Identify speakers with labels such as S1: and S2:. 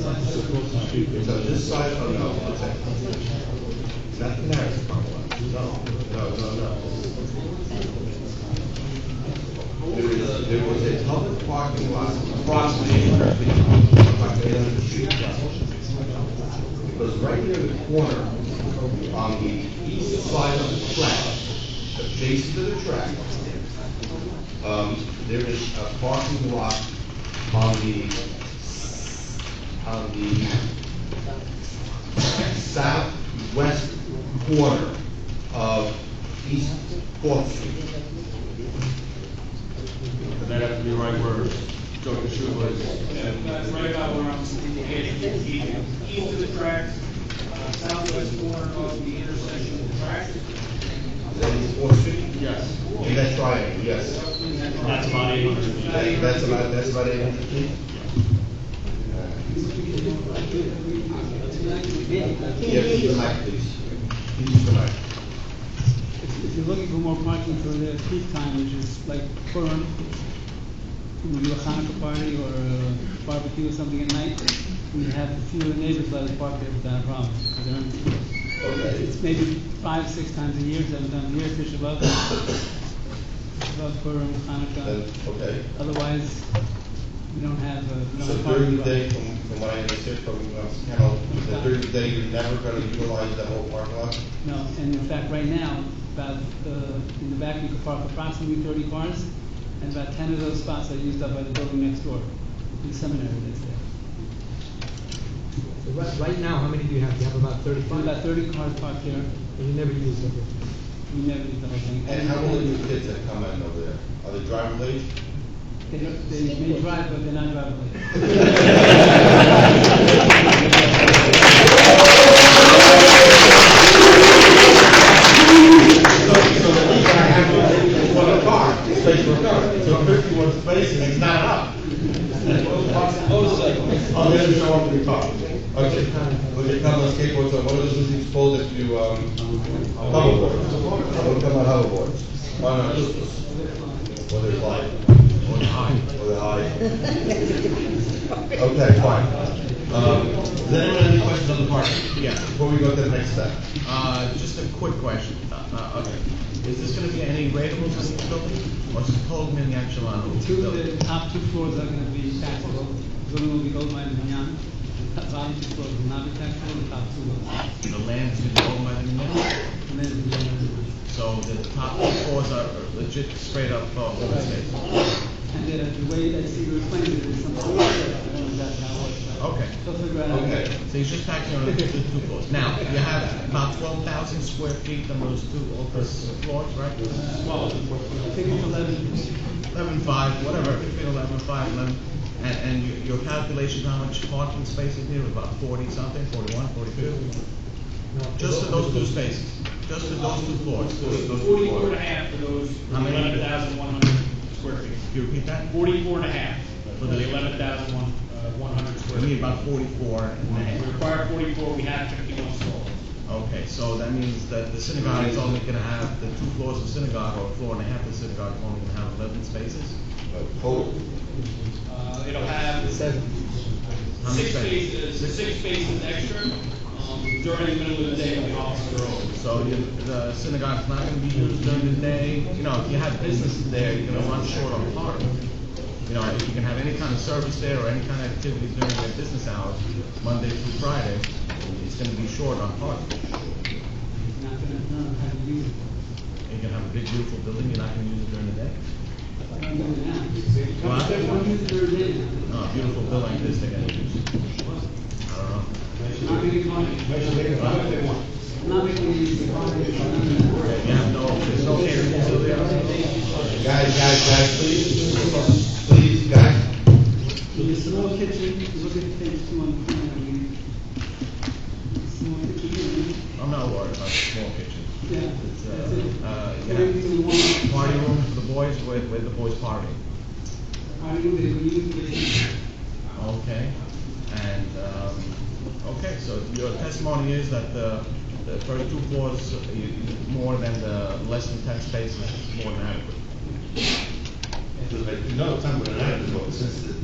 S1: So this side of the house, not the next one, no, no, no, no. There is, there was a public parking lot approximately eight hundred feet from my neighbor's street. Because right near the corner, on the east side of the track, adjacent to the track, um, there is a parking lot on the on the southwest corner of East Fourth Street.
S2: That has to be right where Joe Kishu was.
S3: That's right about where I'm standing. East of the tracks, uh, southwest corner of the intersection of the tracks.
S1: Is that East Fourth Street?
S2: Yes.
S1: In that triangle, yes.
S2: That's about eight hundred feet.
S1: That- That's about, that's about it. Yes, you might, please. Please, you might.
S4: If you're looking for more parking for the peak time, which is like for, when we do a Hanukkah party or a barbecue or something at night, we have a few of the neighbors let us park there without a problem. 'cause they don't-
S1: Okay.
S4: It's maybe five, six times a year, seven times a year, Fish above, above Purim,
S1: Then,
S4: Hanukkah.
S1: Okay.
S4: Otherwise, we don't have, uh, we don't
S1: So
S4: have
S1: during
S4: parking.
S1: the day, from, from what I understood from, um, Carol, that during the day, you're never gonna utilize that whole parking lot?
S4: No, and in fact, right now, about, uh, in the back, you could park approximately thirty cars, and about ten of those spots are used up by the building next door, the seminary that's there.
S5: So Right, right now, how many do you have? You have about
S4: There's
S5: thirty-five,
S4: about thirty cars parked here,
S5: and you never use them.
S4: we never did the whole thing.
S1: And how old are your kids that come in over there? Are they driving late?
S4: They, they may drive, but they're not driving.
S1: So, so the reason I have one one car, space for a car, so fifty-one space and it's not up. Oh, there's a car for a car. Okay, well, you come on skateboards, or what are those things called if you, um, hoverboards? What come on hoverboards? Why not just, or they're light, or they're high, or they're high. Okay, fine. Um, does anyone have any questions on the parking?
S6: Yeah.
S1: Before we go to the next step.
S6: Uh, just a quick question, uh, uh, okay, is this gonna be any rateable to the building, or is it total manufacturing?
S4: Two of the top two floors are gonna be taxable, the building will be gold mine and Hinyan, the bottom two floors will not be taxable, the top two will.
S6: The land's been owned by the municipality,
S4: And then the other one.
S6: so the top floors are legit straight up, uh, open space.
S4: And then uh, the way that you explained it is something, I don't know exactly how it works. but
S6: Okay.
S4: They'll figure it out.
S1: Okay.
S6: So you're just taxing on the two two floors. Now, you have about twelve thousand square feet on those two office floors, right?
S4: I think it's eleven.
S6: Eleven five, whatever, between eleven five, eleven, and, and your your calculations, how much parking space is there, about forty something, forty-one, forty-two? Just for those two spaces, just for those two floors.
S3: Forty-four and a half of those,
S6: How many?
S3: eleven thousand one hundred square feet.
S6: You repeat that?
S3: Forty-four and a half for the eleven thousand one, uh, one hundred square
S6: We need
S3: feet.
S6: about forty-four, and
S3: We
S6: then,
S3: require forty-four, we have fifty-one stalls.
S6: okay, so that means that the synagogue is only gonna have, the two floors of synagogue, or floor and a half of synagogue, is only gonna have eleven spaces?
S1: Total.
S3: Uh, it'll have
S5: Seven.
S6: How many
S3: six
S6: spaces?
S3: spaces, six spaces extra, um, during the middle of the day when the offices are open.
S6: So you- the synagogue's not gonna be used during the day, you know, if you have businesses there, you're gonna run short on parking. You know, if you can have any kind of service there, or any kind of activities during their business hours, Monday through Friday, it's gonna be short on parking.
S4: Not gonna, no, I haven't used it.
S6: You're gonna have a big beautiful building, you're not gonna use it during the day?
S4: I'm gonna do it now.
S6: What?
S4: I don't use it every day now.
S6: No, a Uh, beautiful bill like this, they're gonna use. I don't know.
S4: Not making money. Not making use of money.
S6: You have uh, no, there's no catering facility.
S1: Guys, guys, guys, please, please, guys.
S4: There's a small kitchen, if you look at page two on the corner, I mean, small kitchen,
S6: I'm not worried about the small kitchen.
S4: yeah,
S6: It's,
S4: that's it.
S6: uh, uh,
S4: Everything we
S6: yeah.
S4: want.
S6: Party room for the boys, where, where the boys party.
S4: Party room, they will use it.
S6: Okay, and, um, okay, so your testimony is that the, the thirty-two floors, uh, you- you- more than the, less than ten spaces is more than adequate.
S1: because like, you know, time when I have to go, since the